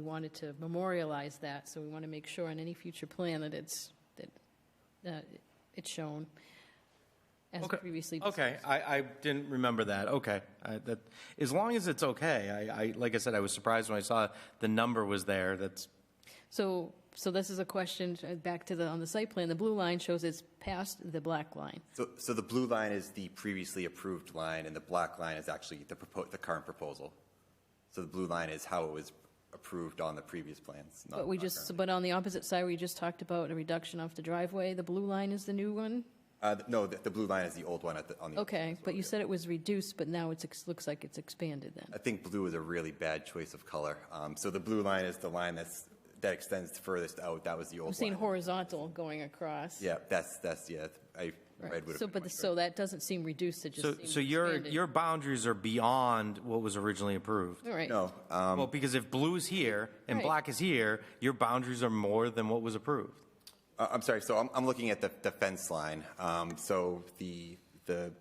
We wanted to memorialize that, so we want to make sure on any future plan that it's, that uh, it's shown as Okay. previously. Okay, I, I didn't remember that, okay. I- That, as long as it's okay, I, I, like I said, I was surprised when I saw the number was there, that's, So, so this is a question, uh, back to the, on the site plan, the blue line shows it's past the black line. So, so the blue line is the previously approved line, and the black line is actually the propo, the current proposal. So the blue line is how it was approved on the previous plans. not- But we not just, current. but on the opposite side, we just talked about a reduction off the driveway. The blue line is the new one? Uh, th- no, the, the blue line is the old one at the, on the. Okay, but you said it was reduced, but now it's, ex- looks like it's expanded then. I think blue is a really bad choice of color. Um, so the blue line is the line that's, that extends furthest out. That was the old I'm one. seeing horizontal going across. Yeah, that's, that's, yeah, I, red would have. So, been but, my the- so that doesn't seem reduced, it just so, seems so your, expanded. your boundaries are beyond what was originally approved. All right. No, um, Well, because if blue is here and Right. black is here, your boundaries are more than what was approved. Uh, I'm sorry, so I'm, I'm looking at the, the fence line. Um, so the, the,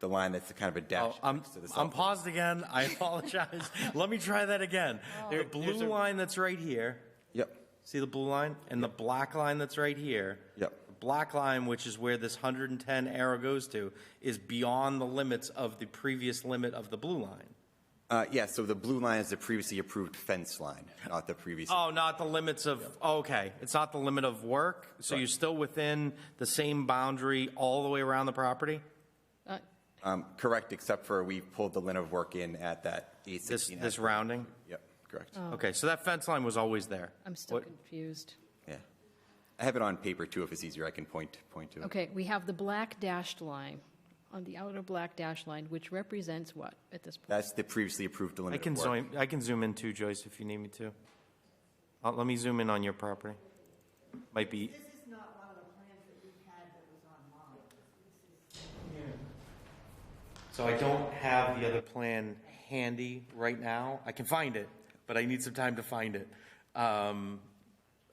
the line that's kind of a dash. Oh, I'm, next to the I'm south- paused again, I apologize. Let me try that again. Oh. The blue line that's right here, Yep, see the blue line? And the black line that's right here. Yep. The Black line, which is where this 110 arrow goes to, is beyond the limits of the previous limit of the blue line. uh, yeah, so the blue line is the previously approved fence line, not the previous. Oh, not the limits of, oh, okay, it's not the limit of work, so you're still within the same boundary all the way around the property? Uh, Um, correct, except for we pulled the line of work in at that eight This, sixteen. this rounding? Yep, correct, Okay, so that fence line was always there? Oh. I'm still What- confused. yeah. I have it on paper too, if it's easier, I can point, point to it. Okay, we have the black dashed line, on the outer black dashed line, which represents what at this point? That's the previously approved I limit can of work. zoom, I can zoom in too, Joyce, if you need me to. Uh, Let me zoom in on your property. Might be, This is not one of the plans that we had that was online. so I don't have the other plan handy right now. I can find it, but I need some time to find it. Um,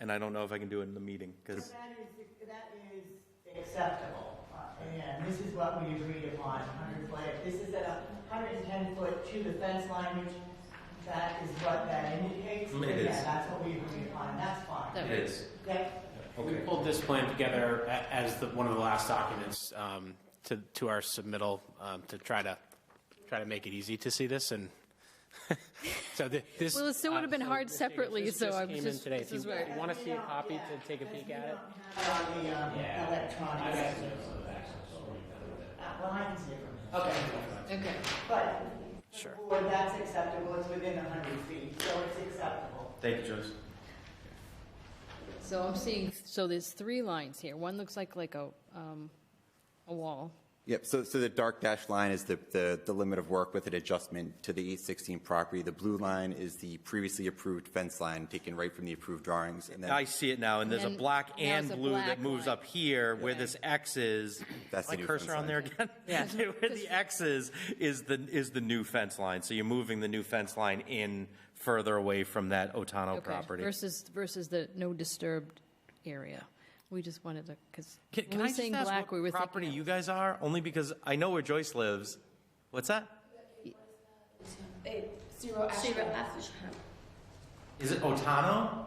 And I don't know if I can do it in the meeting, because, That is, that is acceptable, uh, and this is what we agreed upon, hundred foot, this is at hundred and ten foot to the fence line, which that is what that indicates. It is. Yeah, that's what we agreed upon, that's fine. That- it is. Yep. We pulled this plan together a- as the, one of the last documents um, to, to our submittal um, to try to, try to make it easy to see this and, so thi- this. Well, it still would've been uh, so hard this- separately, this- so this I'm came in just- today. this If you- is where- if you want to see a copy to take a peek at it? On the, um, electronic. system. Uh, Well, I can see it from here. Okay. Okay, But, Sure. or that's acceptable, it's within hundred feet, so it's acceptable. Thank you, Joyce. so I'm seeing, so there's three lines here. One looks like, like a, um, a wall. Yep, so, so the dark dash line is the, the, the limit of work with an adjustment to the eight sixteen property. The blue line is the previously approved fence line taken right from the approved drawings, and I then see it now, and there's a And black now and it's a blue black that moves line. up here where this X is. That's the My new cursor fence on there again? Yeah. Where the X is, is the, is the new fence line. So you're moving the new fence line in further away from that Otano Okay, property. Versus, versus the no disturbed area. We just wanted to, because Can when can we I were just saying ask black, we were what property thinking. you guys are? Only because I know where Joyce lives. What's that? Zero Ashram. Is it Otano?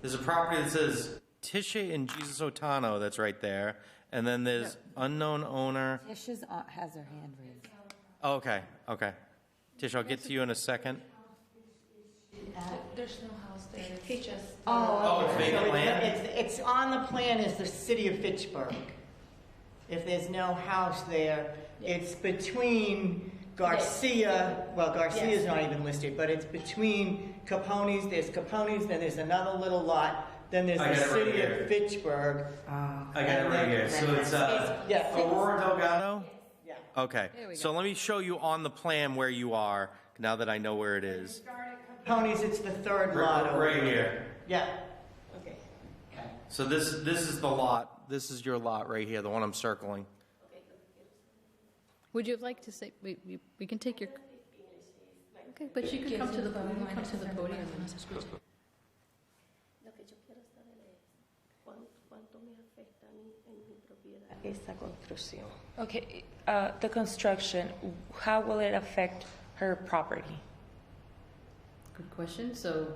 There's a property that says Tisha and Jesus Otano that's right there. And then there's unknown owner. Tisha's aunt has her hand raised. Oh, Okay, okay. Tish, I'll get to you in a second. There's no house there. It's just. Oh, it's So vacant land? It's, it's on the plan as the city of Fitchburg. If there's no house there, it's between Garcia, well, Garcia's not even listed, but it's between Capone's, there's Capone's, then there's another little lot, then there's I the got it right city here. of Fitchburg. I got it right here. So it's uh, Yeah. Aurora Delgado? Yeah. Okay, There we so go. let me show you on the plan where you are, now that I know where it is. Capone's, it's the third lot over. Right here. Yeah. Okay. So this, this is the lot, this is your lot right here, the one I'm circling. Would you like to say, we, we- we can take your. Okay, but you can come to the, you can come to the podium and Lo que yo quiero saber es cuán- cuánto me afecta a mí en mi propiedad. Esa construcción. Okay, uh, the construction, how will it affect her property? Good question. So